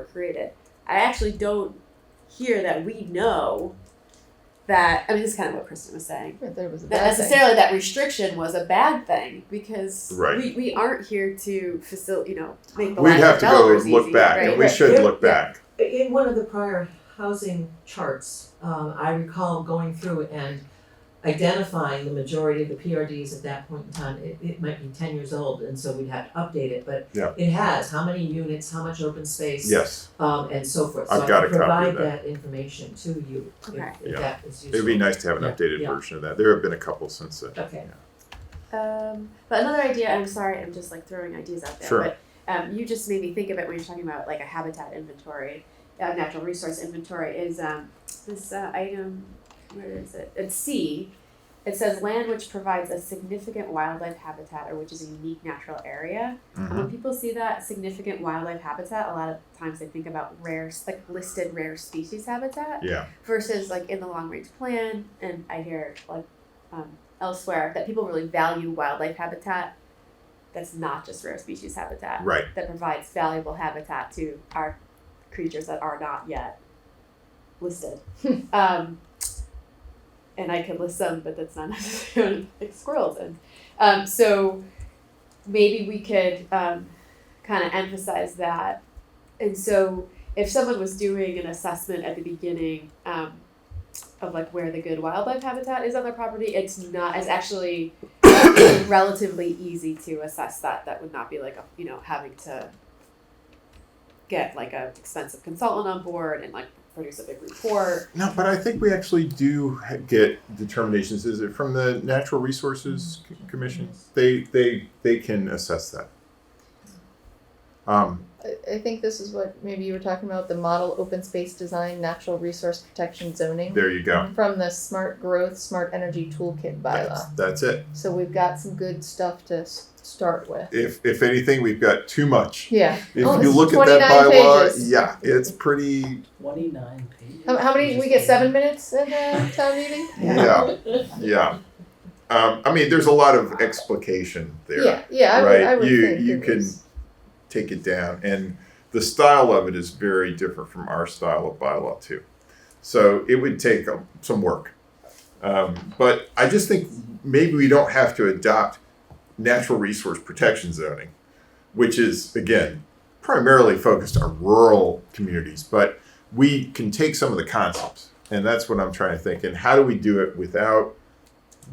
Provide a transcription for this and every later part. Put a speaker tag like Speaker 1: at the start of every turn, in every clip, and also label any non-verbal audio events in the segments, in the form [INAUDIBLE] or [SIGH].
Speaker 1: create it. I actually don't hear that we know that. I mean, this is kind of what Kristen was saying.
Speaker 2: Right, that it was a
Speaker 1: That
Speaker 2: bad thing.
Speaker 1: necessarily that restriction was a bad thing because
Speaker 3: Right.
Speaker 1: we, we aren't here to facilitate, you know, make the
Speaker 3: We'd
Speaker 1: lives of
Speaker 3: have to go
Speaker 1: developers
Speaker 3: look
Speaker 1: easy,
Speaker 3: back,
Speaker 1: right?
Speaker 3: and we
Speaker 2: right.
Speaker 3: should
Speaker 4: Yeah.
Speaker 3: look back.
Speaker 4: In one of the prior housing charts, um, I recall going through and identifying the majority of the PRDs at that point in time. It, it might be ten years old, and so we'd have to update it, but
Speaker 3: Yeah.
Speaker 4: it has, how many units, how much open space,
Speaker 3: Yes,
Speaker 4: um, and so forth. So
Speaker 3: I've
Speaker 4: I
Speaker 3: got
Speaker 4: can
Speaker 3: a copy of
Speaker 4: provide
Speaker 3: that.
Speaker 4: that information to you, if,
Speaker 1: Okay.
Speaker 4: if
Speaker 3: Yeah.
Speaker 4: that is useful.
Speaker 3: it'd be nice to have an
Speaker 4: Yeah,
Speaker 3: updated
Speaker 4: yeah.
Speaker 3: version of that. There have been a couple since then.
Speaker 4: Okay.
Speaker 1: Um, but another idea, I'm sorry, I'm just like throwing ideas out there.
Speaker 3: Sure.
Speaker 1: But um, you just made me think of it when you're talking about like a habitat inventory, a natural resource inventory. Is um, this uh, item? Where is it? It's C. It says land which provides a significant wildlife habitat or which is a unique natural area. And
Speaker 3: Mhm.
Speaker 1: when people see that significant wildlife habitat, a lot of times they think about rare, like listed rare species habitat
Speaker 3: Yeah,
Speaker 1: versus like in the long range plan and i hear like um, elsewhere that people really value wildlife habitat that's not just rare species habitat
Speaker 3: right.
Speaker 1: that provides valuable habitat to our creatures that are not yet listed um, and i could list some but that's not [LAUGHS] necessarily like squirrels and um, so maybe we could um, kind of emphasize that and so if someone was doing an assessment at the beginning um, of like where the good wildlife habitat is on their property, it's not it's actually [COUGHS] relatively easy to assess that. That would not be like a, you know having to get like an expensive consultant on board and like produce a big report.
Speaker 3: No, but I think we actually do ha- get determinations. Is it from the Natural Resources C- Commission? They they they can assess that. Um,
Speaker 2: I, I think this is what maybe you were talking about the model open space design, natural resource protection zoning
Speaker 3: there you go.
Speaker 2: from the smart growth, smart energy toolkit
Speaker 3: That's,
Speaker 2: bylaw.
Speaker 3: that's it.
Speaker 2: So we've got some good stuff to s- start with.
Speaker 3: If if anything, we've got too much.
Speaker 2: Yeah.
Speaker 3: If
Speaker 2: Oh,
Speaker 3: you
Speaker 2: it's
Speaker 3: look at that
Speaker 2: 29
Speaker 3: bylaw,
Speaker 2: pages.
Speaker 3: yeah, it's pretty.
Speaker 5: Twenty-nine pages.
Speaker 2: How, how many? We get seven minutes in the town meeting.
Speaker 3: [LAUGHS] Yeah, yeah. Um, I mean, there's a lot of explication there.
Speaker 2: Yeah, yeah, I
Speaker 3: Right,
Speaker 2: would, I would
Speaker 3: you-
Speaker 2: think
Speaker 3: you
Speaker 2: it
Speaker 3: can-
Speaker 2: was-
Speaker 3: Take it down, and the style of it is very different from our style of bylaw too. So it would take um, some work. Um, but I just think maybe we don't have to adopt natural resource protection zoning, which is again primarily focused on rural communities. But we can take some of the concepts, and that's what I'm trying to think. And how do we do it without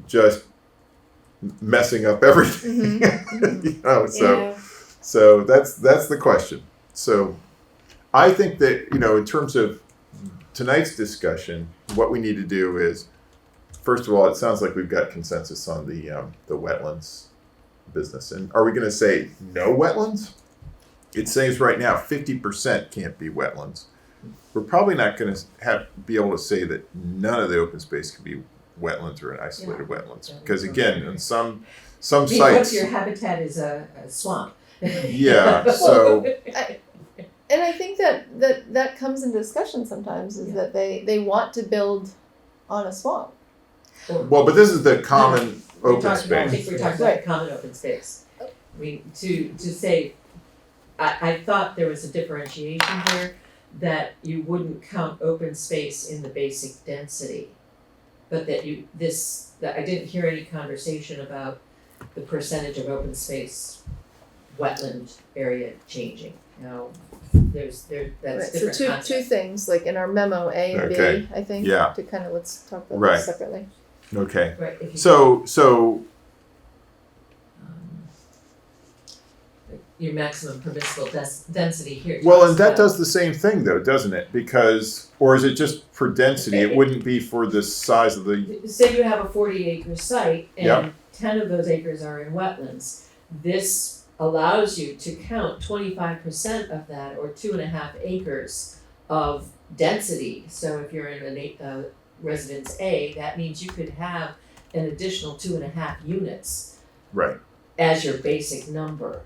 Speaker 3: just messing up
Speaker 2: Mm-hmm.
Speaker 3: everything? [LAUGHS] you know, so. So that's that's the question. So I think that you know, in terms of tonight's discussion, what we need to do is, first of all, it sounds like we've got consensus on the um, the wetlands business, and are we going to say no wetlands? It says right now fifty percent can't be wetlands. We're probably not going to have be able to say that none of the open space can be wetlands or an isolated wetlands because again, in some some
Speaker 4: Because
Speaker 3: sites,
Speaker 4: your habitat is a a swamp.
Speaker 3: yeah.
Speaker 4: [LAUGHS]
Speaker 3: So
Speaker 2: And I think that that that comes in discussion sometimes is
Speaker 4: Yeah.
Speaker 2: that they they want to build on a swamp.
Speaker 3: Well, but this is the common
Speaker 4: We're
Speaker 3: open
Speaker 4: talking about- I
Speaker 3: space.
Speaker 4: think we're talking
Speaker 2: Right.
Speaker 4: about common open space. I mean, to, to say, I, I thought there was a differentiation here, that you wouldn't count open space in the basic density. But that you, this, that I didn't hear any conversation about the percentage of open space wetland area changing. Now, there's, there, that's
Speaker 2: Right,
Speaker 4: a different
Speaker 2: so two
Speaker 4: concept.
Speaker 2: two things like in our memo A and
Speaker 3: Okay,
Speaker 2: B, I think.
Speaker 3: yeah.
Speaker 2: To kind of let's talk about
Speaker 3: Right.
Speaker 2: those separately.
Speaker 3: Okay.
Speaker 4: Right, if you-
Speaker 3: So, so
Speaker 4: um, your maximum permissible des- density here.
Speaker 3: well,
Speaker 4: talks
Speaker 3: and that
Speaker 4: about-
Speaker 3: does the same thing, though, doesn't it? Because, or is it just for density? It wouldn't be for the size of the.
Speaker 4: Say you have a forty acre site
Speaker 3: Yep.
Speaker 4: and ten of those acres are in wetlands. This allows you to count twenty five percent of that or two and a half acres of density. So if you're in an eight, uh, residence A, that means you could have an additional two and a half units
Speaker 3: Right.
Speaker 4: as your basic number.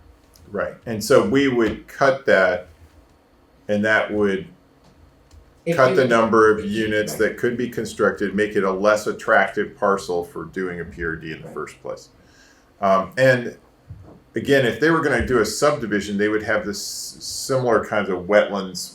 Speaker 3: Right. And so we would cut that, and that would
Speaker 4: If
Speaker 3: cut
Speaker 4: you-
Speaker 3: the number of units that could be constructed, make it a less attractive parcel for doing a PRD in the
Speaker 4: Right.
Speaker 3: first place. Um, and again, if they were going to do a subdivision, they would have this similar kinds of wetlands